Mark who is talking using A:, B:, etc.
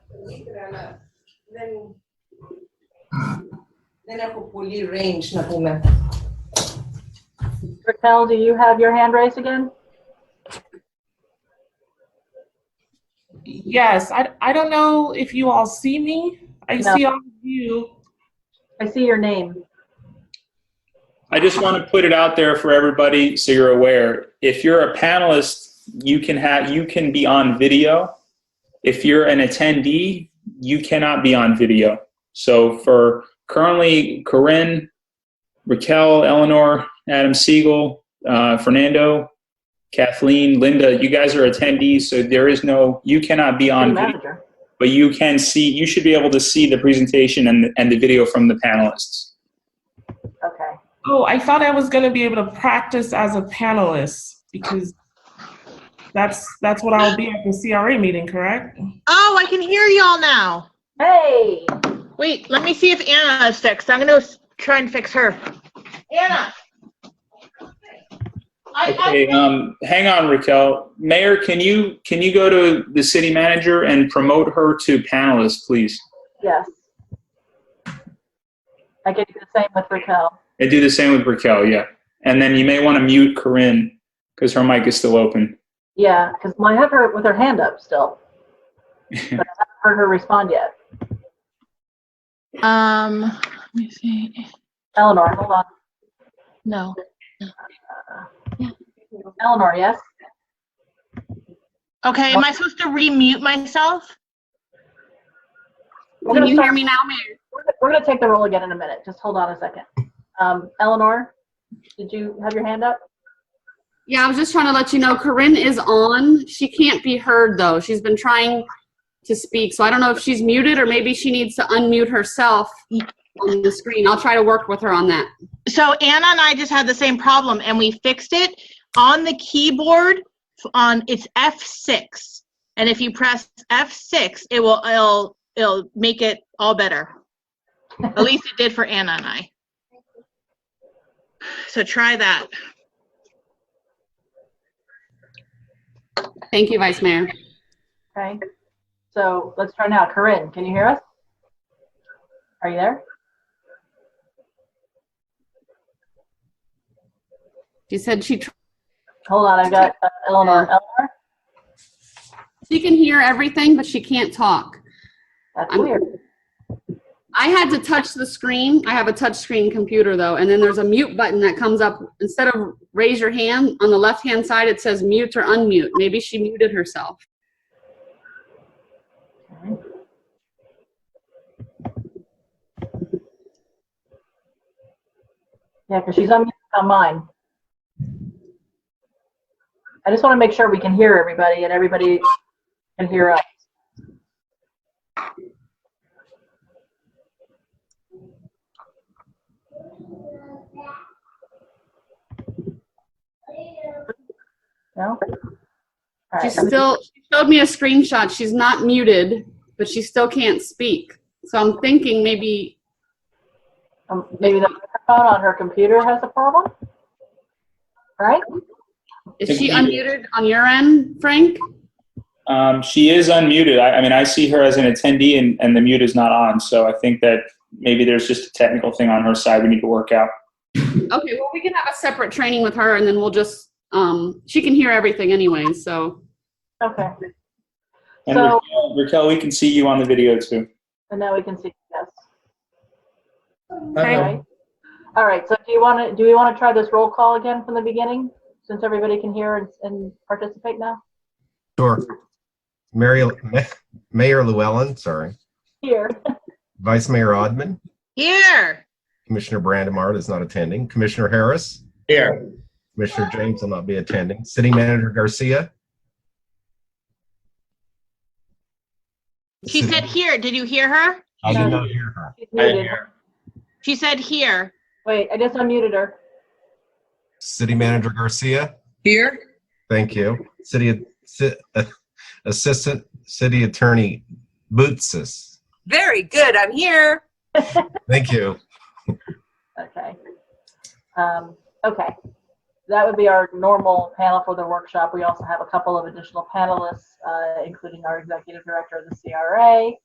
A: Tirana, then then ako fully range na po ma'am.
B: Raquel, do you have your hand raised again?
C: Yes, I, I don't know if you all see me. I
B: No.
C: see all of you.
B: I see your name.
D: I just want to put it out there for everybody so you're aware. If you're a panelist, you can have you can be on video. If you're an attendee, you cannot be on video. So for currently Corinne, Raquel, Eleanor, Adam Siegel, uh, Fernando, Kathleen, Linda, you guys are attendees, so there is no you cannot be on
B: City
D: video,
B: manager.
D: but you can see you should be able to see the presentation and and the video from the panelists.
B: Okay.
C: Oh, I thought I was going to be able to practice as a panelist because that's that's what I'll be at the CRA meeting, correct?
E: Oh, I can hear y'all now.
B: Hey,
E: Wait, let me see if Anna is fixed. I'm gonna s- try and fix her. Anna. I, I,
D: Okay, um, hang on, Raquel. Mayor, can you, can you go to the city manager and promote her to panelist, please?
B: yes. I could do the same with Raquel.
D: And do the same with Raquel, yeah. And then you may want to mute Corinne, because her mic is still open.
B: Yeah, because I have her with her hand up still. But I haven't heard her respond yet.
E: um, let me see.
B: Eleanor, hold on.
E: No.
B: Eleanor, yes?
E: Okay, am I supposed to remute myself?
B: We're
E: Can
B: gonna
E: you
B: start-
E: hear me now, Mayor?
B: We're gonna- we're gonna take the roll again in a minute. Just hold on a second. Um, Eleanor, did you have your hand up?
F: Yeah, I was just trying to let you know Corinne is on. She can't be heard though. She's been trying to speak, so I don't know if she's muted or maybe she needs to unmute herself on the screen. I'll try to work with her on that.
E: So Anna and I just had the same problem and we fixed it on the keyboard f- on it's F6. And if you press F6, it will it'll it'll make it all better. At least it did for Anna and I. So try that.
F: Thank you, Vice Mayor.
B: Okay. So let's try now. Corinne, can you hear us? Are you there?
F: She said she tr-
B: Hold on, I've got uh, Eleanor. Eleanor,
F: she can hear everything, but she can't talk.
B: that's
F: I'm-
B: weird.
F: I had to touch the screen. I have a touch screen computer though, and then there's a mute button that comes up. Instead of raise your hand, on the left hand side it says mute or unmute. Maybe she muted herself.
B: Yeah, because she's on, on mine. I just want to make sure we can hear everybody and everybody can hear us. No? All
F: She
B: right.
F: still she showed me a screenshot. She's not muted, but she still can't speak. So I'm thinking maybe
B: Um, Maybe the microphone on her computer has a problem? Right?
F: is she
D: Maybe.
F: unmuted on your end, Frank?
D: Um, she is unmuted. I, I mean, I see her as an attendee and, and the mute is not on, so I think that maybe there's just a technical thing on her side we need to work out.
F: Okay, well we can have a separate training with her, and then we'll just um, she can hear everything anyway. So
B: Okay.
D: And
B: So-
D: Raquel, Raquel, we can see you on the video too.
B: And now we can see, yes.
F: Okay.
B: Right? All right, so do you want to, do we want to try this roll call again from the beginning, since everybody can hear and, and participate now?
G: Sure. Mary, Mayor Llewellyn, sorry,
B: Here,
G: Vice Mayor Odman,
E: Here.
G: Commissioner Brandimart is not attending, Commissioner Harris.
H: Here.
G: Commissioner James will not be attending, City Manager Garcia.
E: She said here. Did you hear her?
G: I did not hear her.
B: she's muted.
E: She said here.
B: Wait, I just unmuted her.
G: City Manager Garcia,
H: Here?
G: thank you. City Ci- Assistant City Attorney Bootsis,
I: Very good. I'm here.
G: thank you.
B: Okay. Um, okay. That would be our normal panel for the workshop. We also have a couple of additional panelists, uh, including our executive director of the CRA,